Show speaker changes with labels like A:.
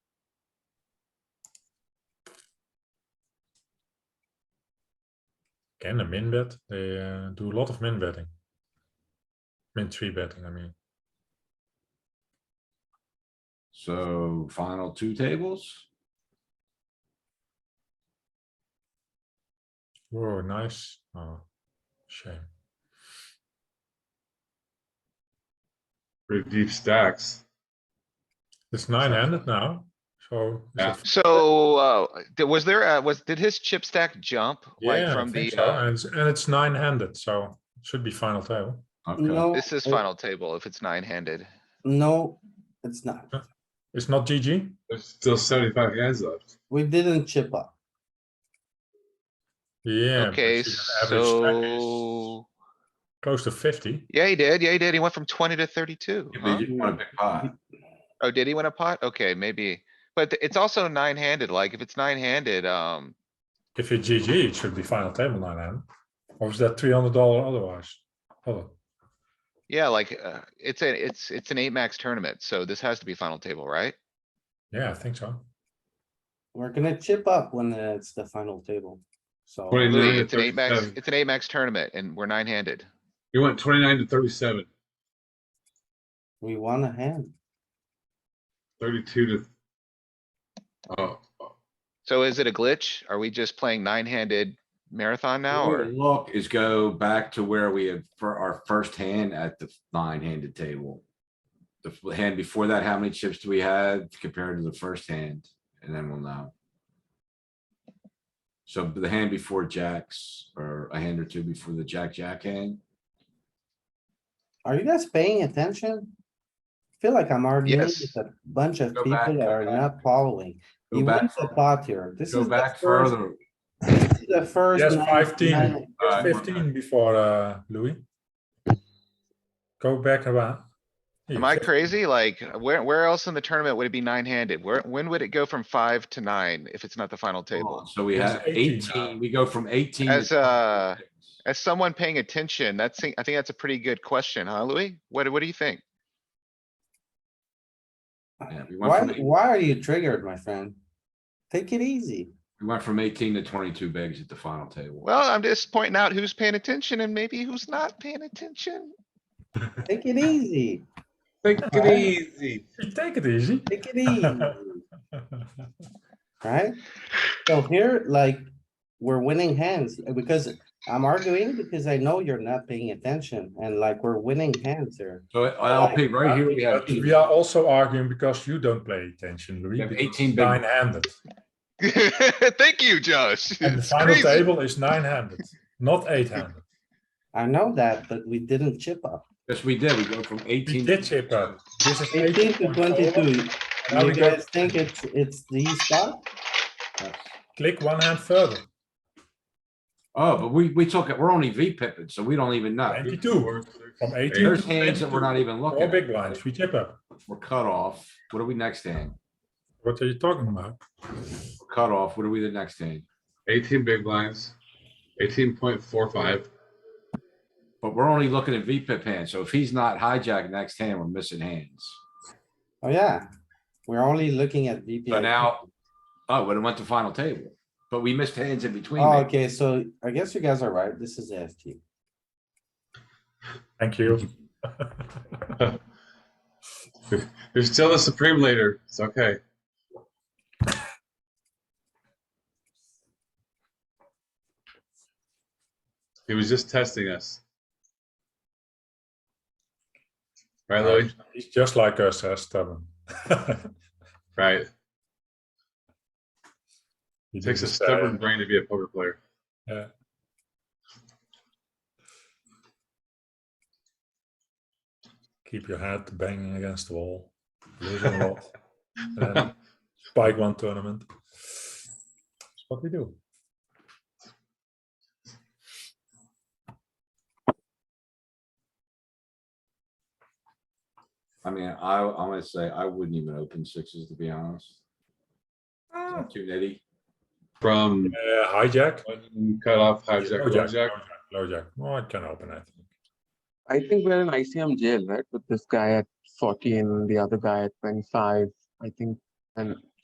A: can a min bet. They uh, do a lot of min betting. Min three betting, I mean.
B: So final two tables,
A: Whoa, nice. Oh, shame.
C: Pretty deep stacks.
A: It's nine handed now. So. is
C: Yeah.
A: it-
D: So, uh, th- was there, uh, was, did his chip stack jump? Like
A: Yeah, I
D: from
A: think
D: the,
A: so.
D: uh,
A: And it's- and it's nine handed, so it should be final table.
B: okay,
E: No.
D: this is
E: it-
D: final table if it's nine handed.
E: No, it's not.
A: It's not GG.
C: There's still seventy-five hands left.
E: We didn't chip up.
A: Yeah. but
D: Okay,
A: you see that average stack is
D: so,
A: Close to fifty.
D: yeah, he did. Yeah, he did. He went from twenty to thirty-two.
B: Yeah,
D: huh?
B: but you want a big pot,
D: Oh, did he win a pot? Okay, maybe. But th- it's also nine handed. Like if it's nine handed, um,
A: If you're GG, it should be final table nine hand. Or is that three hundred dollar otherwise? Hold on.
D: yeah, like, uh, it's a, it's, it's an eight max tournament. So this has to be final table, right?
A: Yeah, I think so.
E: We're gonna chip up when it's the final table. So
C: Wait. 39 to
D: Louis, it's an eight max,
C: 37.
D: it's an eight max tournament and we're nine handed.
C: He went twenty-nine to 37,
E: we won a hand.
C: 32 to. Oh,
D: So is it a glitch? Are we just playing nine handed marathon now
B: What
D: or?
B: we Look, is go back to where we had for our first hand at the nine-handed table. The f- hand before that, how many chips do we had compared to the first hand? And then we'll know. So the hand before jacks, or a hand or two before the jack, jack hand,
E: Are you guys paying attention? Feel like I'm arguing
D: Yes.
E: with a bunch of
B: Go
E: people
B: back,
E: that
B: go
E: are
B: back.
E: not following.
B: Go
E: You
B: back
E: went the
B: fur-
E: pot here. This
B: go
E: is the
B: back
E: first,
B: further.
E: this is the first.
A: Yes,
E: nine-
A: 15.
E: nine-
B: Uh,
A: Fifteen before, uh, Louis. Go back around.
D: Am I crazy? Like where, where else in the tournament would it be nine handed? Where, when would it go from five to nine if it's not the final table?
B: So we
A: It's
B: have
A: 18 now.
B: eighteen, we go from eighteen. to
D: As, uh,
B: 26.
D: As someone paying attention, that's, I think that's a pretty good question, huh, Louis? What, what do you think?
B: Yeah, we went
E: Why,
B: from eight-
E: why are you triggered, my friend? Take it easy.
B: We went from eighteen to twenty-two bigs at the final table.
D: Well, I'm just pointing out who's paying attention and maybe who's not paying attention.
E: Take it easy.
C: take it easy.
A: You Take it easy.
E: Take it easy. Right? So here, like, we're winning hands uh, because I'm arguing because I know you're not paying attention and like we're winning hands here.
B: So LP, right here, we have
A: But we are also arguing because you don't pay attention, Louis.
B: We have
A: because
B: 18
A: it's
B: big-
A: Nine-handed.
D: Thank you, Josh.
A: And the
D: It's
A: final
D: crazy.
A: table is nine-handed, not eight-handed.
E: I know that, but we didn't chip up.
B: Yes, we did. We go from
A: We
B: eighteen.
A: did chip up. This is
E: Eighteen to
A: 18.4.
E: twenty-two.
A: Now we
E: You
A: go
E: guys think it's, it's the spot?
A: click one hand further.
B: Oh, but we, we took it, we're only V pipping, so we don't even know.
A: Twenty-two. From eighteen.
B: There's hands that we're not even looking
A: All big
B: at.
A: blinds, we chip up.
B: We're cut off. What are we next hand?
A: What are you talking about?
B: We're Cut off. What are we the next hand?
C: Eighteen big blinds, eighteen point four five.
B: But we're only looking at V pip hands. So if he's not hijacked next hand, we're missing hands.
E: Oh, yeah. We're only looking at
B: So
E: VPI.
B: now, oh, but it went to final table, but we missed hands in between.
E: Oh,
B: maybe.
E: okay, so I guess you guys are right. This is FT.
A: Thank you.
C: There's still a supreme leader. It's okay. He was just testing us. Right, Louis?
A: He's just like us, uh, stubborn.
C: Right.
A: He
C: It takes a
A: didn't say,
C: stubborn brain to be a poker player.
A: Yeah. Keep your head banging against the wall. Lose a lot. and then Um, spike one tournament. That's what we do.
B: I mean, I, I'm gonna say I wouldn't even open sixes, to be honest. Is that Too nitty.
C: From
A: Uh, hijack.
C: one cutoff, hijack,
A: Low
C: low
A: Oh, jack. Low jack. Oh, I can open, I think.
F: I think we're in ICM jail, right? With this guy at 40 and the other guy at 25. I think, and